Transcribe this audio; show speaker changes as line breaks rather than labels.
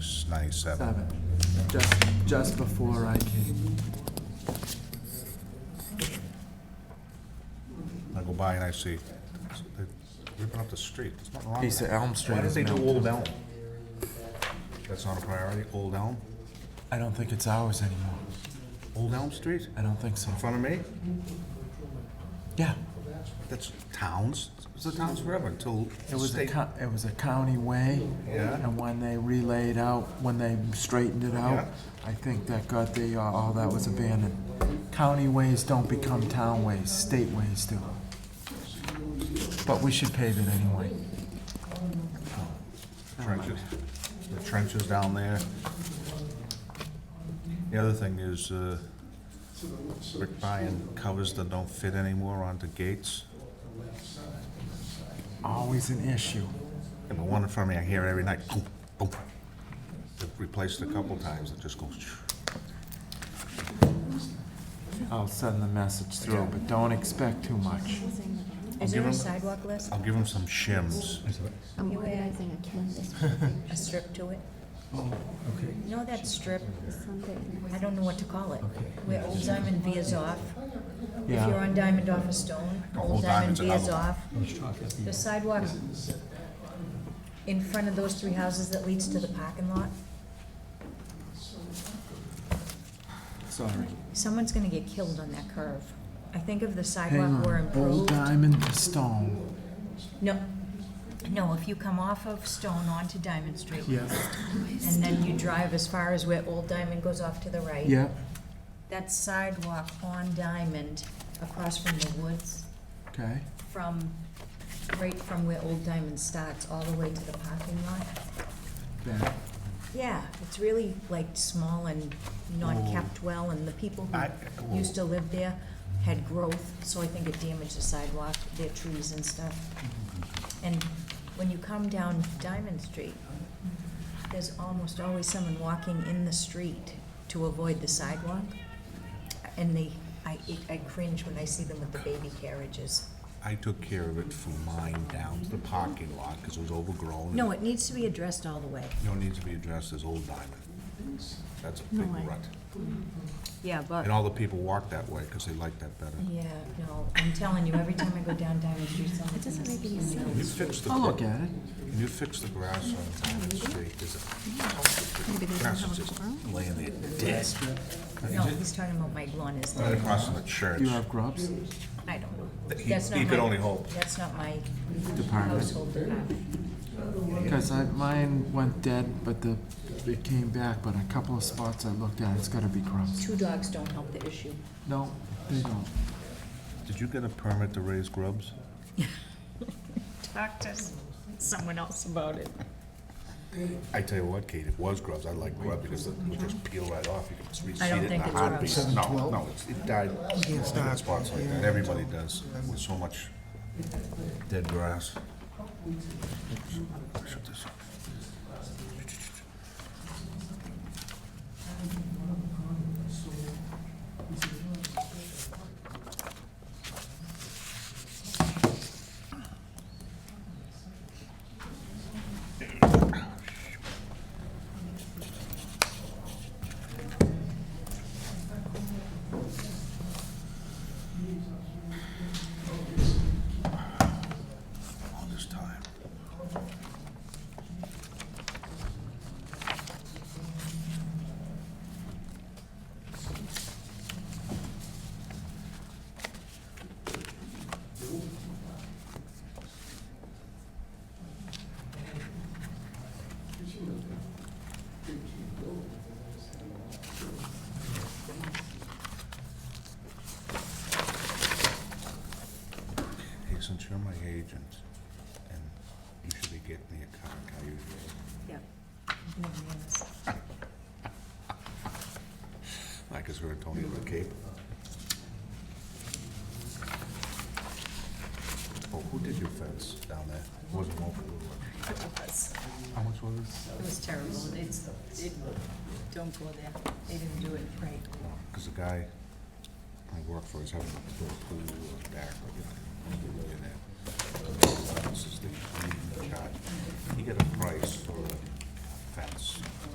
97.
Seven, just, just before I came.
I go by and I see, they- ripping up the street, there's nothing wrong with
Piece of
that.
Elm Street
Why did
is
they do
melted.
Old Elm? That's not a priority, Old Elm?
I don't think it's ours anymore.
Old Elm Street?
I don't think so.
In front of me?
Yeah,
That's towns, it's the towns forever until
it was a,
state.
co- it was a county way.
Yeah.
And when they relayed out, when they straightened it out, I think that got the, uh, all that was abandoned. County ways don't become town ways, state ways do. But we should pave it anyway.
trenches, the trenches down there. The other thing is, uh, Rick Bryan covers that don't fit anymore onto gates.
Always an issue.
And the one in front of me, I hear it every night, boom, boom. They've Replaced a couple times, it just goes.
I'll send the message through, but don't expect too much.
Is there
give 'em-
a sidewalk list?
I'll give them some shims.
I'm organizing a canvas.
a strip to it.
Okay,
You know that strip? I don't know what to call it. Where Old Diamond veers off. If
Yeah.
you're on Diamond off a stone,
Old
Old Diamond
Diamond's another
veers
one.
off.
let's talk at
The
the,
sidewalk in front of those three houses that leads to the parking lot.
Sorry.
Someone's gonna get killed on that curve. I think if the
Hang
sidewalk were
on, old
improved.
diamond to stone.
No, no, if you come off of Stone onto Diamond Street.
Yes.
And then you drive as far as where Old Diamond goes off to the right.
Yep,
That sidewalk on Diamond across from the woods.
okay.
from, right from where Old Diamond starts, all the way to the parking lot.
That-
Yeah, it's really like small and not
Oh.
kept well, and the people
I-
who used to live there had growth, so I think it damaged the sidewalk, their trees and stuff. And when you come down Diamond Street, there's almost always someone walking in the street to avoid the sidewalk. And they, I, I cringe when I see them with the baby carriages.
I took care of it from mine down to the parking lot because it was overgrown.
No, it needs to be addressed all the way.
You know, it needs to be addressed as Old Diamond. That's a big
way.
rut.
Yeah, but.
And all the people walk that way because they like that better.
Yeah, no, I'm telling you, every time I go down Diamond Street, someone
doesn't
says,
make any
you know,
You fix the,
I'll
gra-
Oh, look at it.
you fix the grass on Diamond Street, there's a,
Maybe they don't
grass
have
is
a
just
quorum?
laying there dead.
No, he's talking about my lawn is,
Right
there.
across from the church.
Do you have grubs?
I don't know.
He-
That's not
he could
my-
only hope.
That's not my
Department.
household uh, department.
Because I, mine went dead, but the, it came back, but a couple of spots I looked at, it's gotta be grubs.
Two dogs don't help the issue.
No, they don't.
Did you get a permit to raise grubs?
Talk to someone else about it.
I tell you what, Kate, it was grubs. I like grub because it would just peel right off. You could just reseed
I don't
it in
think
a
it's
heartbeat.
grubs.
No, no, it's- it died. It's not spots like that. Everybody does with so much dead grass. Shut this up. all this time. Hey, since you're my agent, and you should be getting me a car, how you do
Yep. No, yes.
it. Like, is we're Tony with a cape? Oh, who did your fence down there? It Wasn't Wolf, was
It was,
it? How much was it?
it was terrible. It's, it, don't go there. They didn't do it right.
Because the guy I work for is having a pool in the back, but you know, he's a millionaire. This is the, he's in charge. He got a price for a fence.